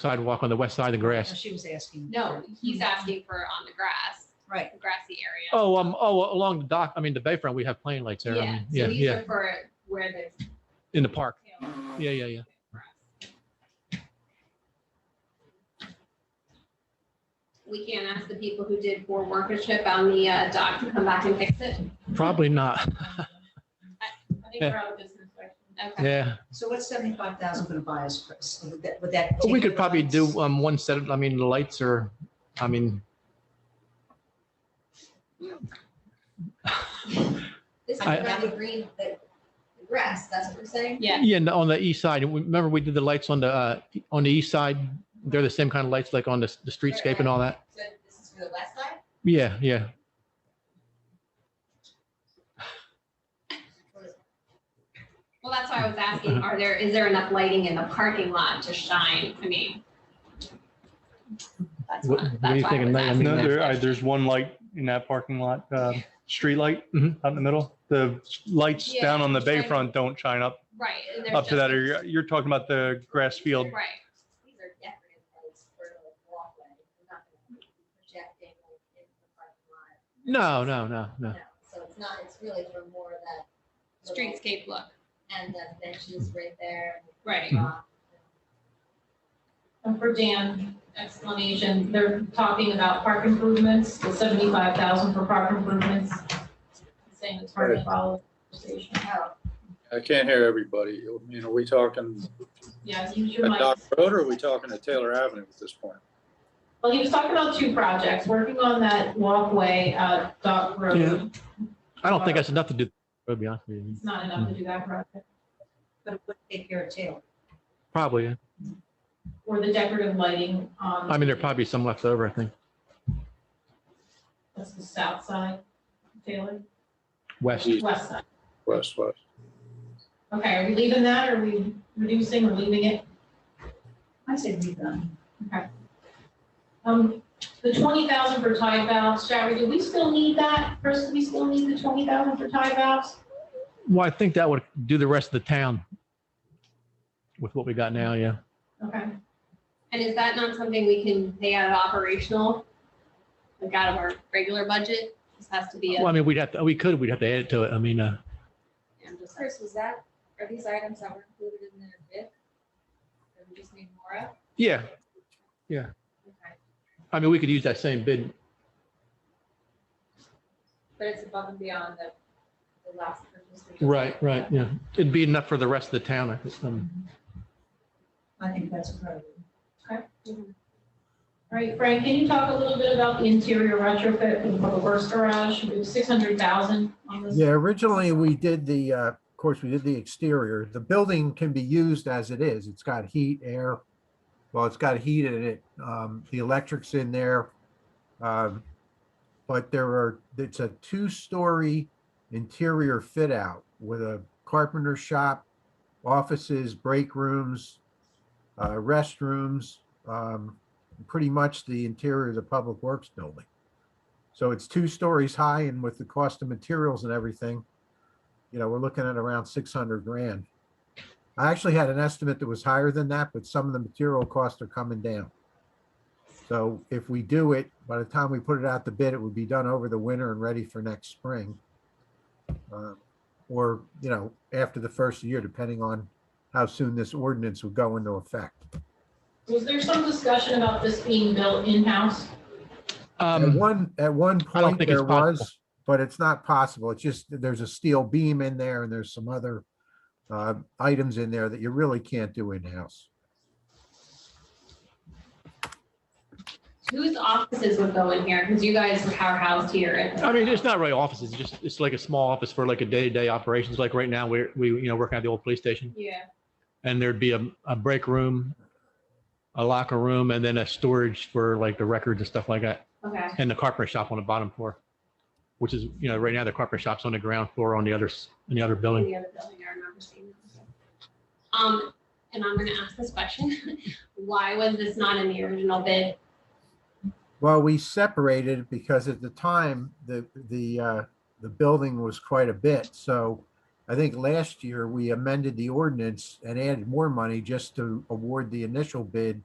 sidewalk on the west side of the No, grass. Oh, She was asking. No, he's asking for on the grass, Right, grassy area. Oh, um, oh, along the dock, I mean, the bayfront, we have plane lights there. I mean, So Yeah, these yeah, are for where there's. in the park. you know, Yeah, yeah, yeah. grass. We can't ask the people who did poor workmanship on the uh, dock to come back and fix it. Probably not. I think we're out of business, right? Okay. Yeah. so what's seventy-five thousand gonna buy us, Chris? Would that- would that? We take could the probably lights? do um, one set of, I mean, the lights are, I mean, This is I- around the green, the the grass, that's what we're saying? Yeah, yeah, and on the east side. And we- Remember, we did the lights on the, uh, on the east side? They're the same kind of lights like on the, the streetscape and all that? So this is for the west side? Yeah, yeah. well, that's why I was asking, Uh-huh. are there, is there enough lighting in the parking lot to shine? I mean. That's What- what why, are you that's why I thinking, was Nate? I asking. mean, No, that's- there, I, there's one light in that parking lot, uh, street light Mhm. out in the middle. The lights Yeah, down on the shine. bayfront don't shine up, Right. and there's up to just- that area. You're talking about the grass field. Right. These are decorative lights for the walkway. We're not gonna be projecting like into the parking lot. No, no, no, no. No. So it's not, it's really for more of that. little- Streetscape look. And the benches right there. Right. rock. And for Dan, explanation, they're talking about park improvements, the seventy-five thousand for park improvements. Saying it's hard to follow the conversation. Oh, I can't hear everybody. I mean, are we talking Yeah, use your at mic. Dock Road or are we talking at Taylor Avenue at this point? Well, he was talking about two projects, working on that walkway at Dock Road. I don't think that's enough to do, to be honest with you. It's not enough to do that project. But it would take care of Taylor. Probably. yeah. Or the decorative lighting on. I mean, there'd probably be some left over, I think. That's the south side, Taylor, West. East, west side. west, west. Okay, are we leaving that? Are we reducing or leaving it? I said we done. Um, the twenty thousand for tie valves, Shari, do we still need that? Chris, do we still need the twenty thousand for tie valves? Well, I think that would do the rest of the town with what we got now, yeah. Okay, And is that not something we can pay out of operational? Like out of our regular budget? This has to be a. Well, I mean, we'd have, to we could, we'd have to add it to it. I mean, uh, I'm just like- Chris, was that, are these items that were included in the bid? Or we just need more of? yeah, Okay. I mean, we could use that same bid. But it's above and beyond the, the last purchase. we just- Right, right, yeah. It'd be enough for the rest of the town. I think, um, I think that's appropriate. all right, Frank, can you talk a little bit about the interior retrofit for the public works garage? We have six hundred thousand on this. Yeah, originally we did the, uh, of course, we did the exterior. The building can be used as it is. It's got heat, air. Well, it's got heat in it. Um, the electric's in there. Um, but there are, it's a two-story interior fit out with a carpenter shop, offices, break rooms, uh, restrooms, um, pretty much the interior of the Public Works building. So it's two stories high and with the cost of materials and everything, you know, we're looking at around six hundred grand. I actually had an estimate that was higher than that, but some of the material costs are coming down. So if we do it, by the time we put it out the bid, it would be done over the winter and ready for next spring. Uh, Or, you know, after the first year, depending on how soon this ordinance would go into effect. Was there some discussion about this being built in-house? At Um, one, at one I don't point think it's there possible. was, but it's not possible. It's just, that there's a steel beam in there and there's some other uh, items in there that you really can't do in-house. Whose offices would go in here? Because you guys are housed here. and- I mean, it's not really offices, it's just, it's like a small office for like a day-to-day operations. Like right now, we're, we, you know, working at the old police station. Yeah. And there'd be a, a break room, a locker room, and then a storage for like the records and stuff like that. Okay. and the carpenter shop on the bottom floor, which is, you know, right now the carpenter shop's on the ground floor on the other, s- in the other in building. the other building, I remember seeing that. Um, and I'm gonna ask this question. Why was this not in the original bid? Well, we separated it because at the time, the, the, uh, the building was quite a bit. So I think last year we amended the ordinance and added more money just to award the initial bid